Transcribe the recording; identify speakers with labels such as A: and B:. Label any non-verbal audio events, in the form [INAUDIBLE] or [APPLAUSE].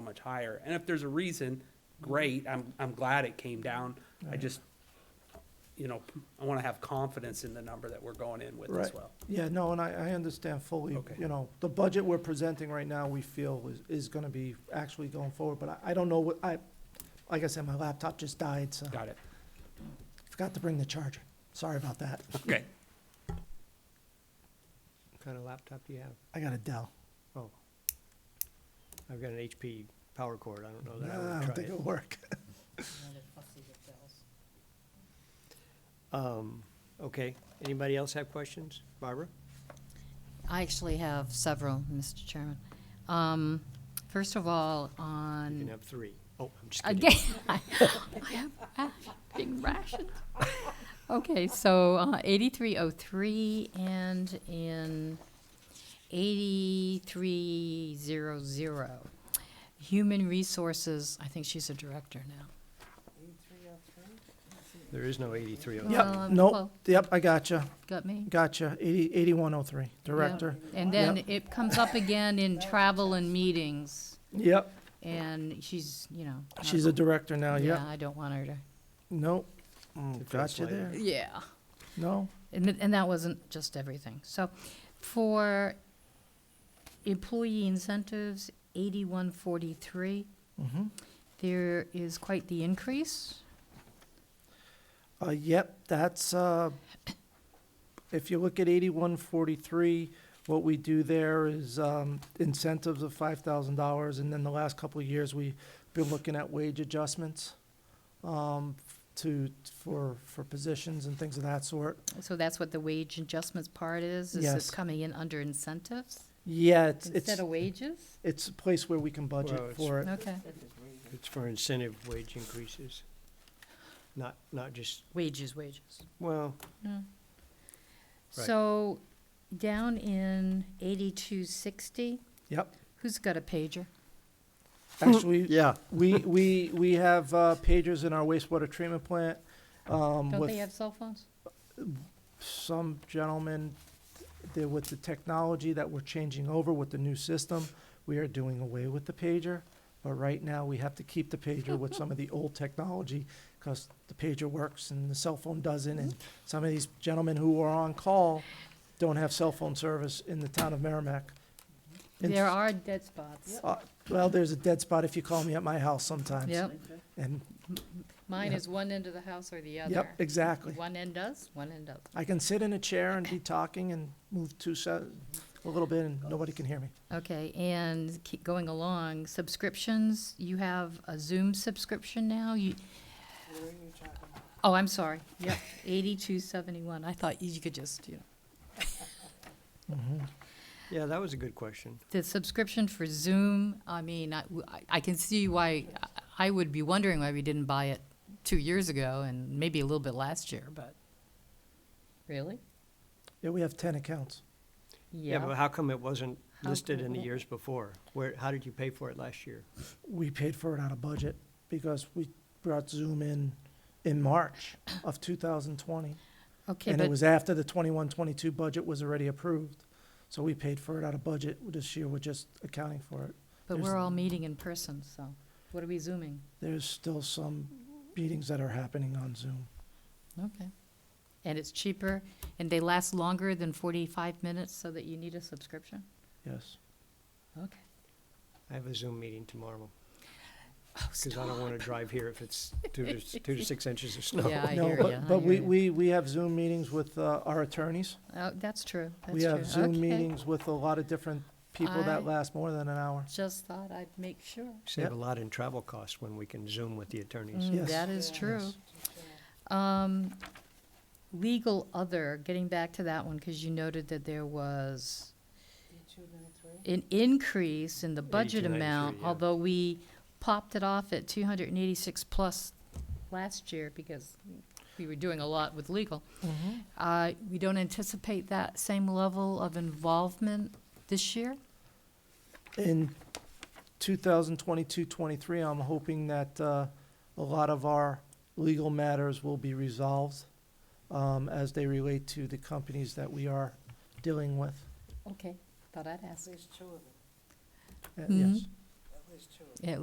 A: much higher. And if there's a reason, great, I'm, I'm glad it came down. I just, you know, I wanna have confidence in the number that we're going in with as
B: Right.
A: well.
B: Yeah, no, and I, I understand fully,
A: Okay.
B: you know, the budget we're presenting right now, we feel is, is gonna be actually going forward, but I, I don't know what, I, like I said, my laptop just died, so
A: Got it.
B: forgot to bring the charger. Sorry about that.
A: Okay.
C: What kind of laptop do you have?
B: I got a Dell.
C: Oh. I've got an HP power cord, I don't know that
B: Nah, Ah, I
C: I
B: don't
C: would
B: think
C: try
B: it'll work. [LAUGHS]
D: No, they're fussy with bells.
C: it. Um, okay, anybody else have questions? Barbara?
D: I actually have several, Mr. Chairman. Um, First of all,
C: You can
B: Mm.
D: on,
C: have three. Oh, I'm just kidding.
D: again, [LAUGHS] I am rash- being rationed. Okay, so uh, 8303 and in 8300, Human Resources, I think she's a director now.
C: There is no eighty-three oh.
D: Well, um,
B: Yep, nope,
D: well-
B: yep, I gotcha,
D: Got me?
B: gotcha, eighty, eighty-one oh three, director.
D: Yeah. And then
B: Yep.
D: it comes up again in travel and meetings,
B: Yep,
D: and she's, you know. not-
B: she's a director now, yep,
D: Yeah, I don't want her to,
B: nope,
C: It feels
B: Mm, gotcha
C: like-
B: there,
D: yeah.
B: no,
D: And, th- and that wasn't just everything. So for employee incentives, eighty-one forty-three,
B: mm-hmm.
D: there is quite the increase.
B: Uh, yep, that's, uh, if you look at eighty-one forty-three, what we do there is, um, incentives of five thousand dollars, and then the last couple of years, we've been looking at wage adjustments, um, to, for, for positions and things of that sort.
D: So that's what the wage adjustments part is, is
B: Yes.
D: it's coming in under incentives
B: Yeah, it's,
D: instead
B: it's,
D: of wages?
B: it's a place where we can
C: Well,
B: budget
C: it's-
B: for it.
D: Okay,
C: It's for incentive wage increases. Not, not just,
D: wages, wages.
C: well,
D: No.
C: Right.
D: Hmm. So, down in eighty-two sixty, [LAUGHS]
B: Yep,
D: who's got a pager?
B: actually,
C: yeah,
B: we, we, we have, uh, pagers in our wastewater treatment plant, um,
D: Don't
B: with.
D: they have cell phones?
B: some gentlemen, there with the technology that we're changing over with the new system, we are doing away with the pager. But right now, we have to keep the pager with some of the old technology, because the pager works and the cell phone doesn't. And some of these gentlemen who are on call don't have cell phone service in the town of Merrimack. And-
D: There are dead spots.
B: Uh, Well, there's a dead spot if you call me at my house sometimes.
D: Yep,
B: And,
D: mine
B: Yeah.
D: is one end of the house or the other.
B: yep, exactly.
D: One end does, one end doesn't.
B: I can sit in a chair and be talking and move two, se- a little bit, and nobody can hear me.
D: Okay, and keep going along, subscriptions, you have a Zoom subscription now, you. Oh, I'm sorry, yep, eighty-two seventy-one, I thought you could just, you know.
C: yeah, that was a good question.
D: The subscription for Zoom, I mean, I, I- I can see why, I I would be wondering why we didn't buy it two years ago and maybe a little bit last year, but. Really?
B: Yeah, we have ten accounts.
C: Yeah, but how come it wasn't
D: How
C: listed
D: come
C: in the
D: it-
C: years before? Where, how did you pay for it last year?
B: We paid for it out of budget because we brought Zoom in in March of two thousand twenty.
D: Okay,
B: And it
D: but,
B: was after the twenty-one, twenty-two budget was already approved. So we paid for it out of budget. This year, we're just accounting for it.
D: but
B: there's-
D: we're all meeting in person, so what are we Zooming?
B: There's still some meetings that are happening on Zoom.
D: Okay. And it's cheaper, and they last longer than forty-five minutes, so that you need a subscription?
B: Yes.
D: Okay.
C: I have a Zoom meeting tomorrow,
D: Oh,
C: because I don't want to drive here if it's two to, s- two to six inches of snow.
D: [LAUGHS] Yeah, I
B: No,
D: hear
B: but-
D: ya, I
B: But
D: hear
B: we,
D: ya.
B: we, we have Zoom meetings with, uh, our attorneys.
D: Oh, that's true, that's true.
B: We have Zoom
D: Okay.
B: meetings with a lot of different people
D: I-
B: that last more than an hour.
D: Just thought I'd make sure.
C: Save
B: Yep.
C: a lot in travel costs when we can Zoom with the attorneys.
D: Mm,
B: Yes.
D: That is true.
B: Yes.
D: Um, legal other, getting back to that one, because you noted that there was an increase in the budget
C: 82.93,
D: amount,
C: yeah.
D: although we popped it off at two hundred and eighty-six plus last year because we were doing a lot with legal. Uh, we don't anticipate that same level of involvement this year?
B: in 2022, 23, I'm hoping that uh, a lot of our legal matters will be resolved um, as they relate to the companies that we are dealing with.
D: Okay, thought I'd ask.
B: Uh,
D: Mhm.
B: Yes.
D: At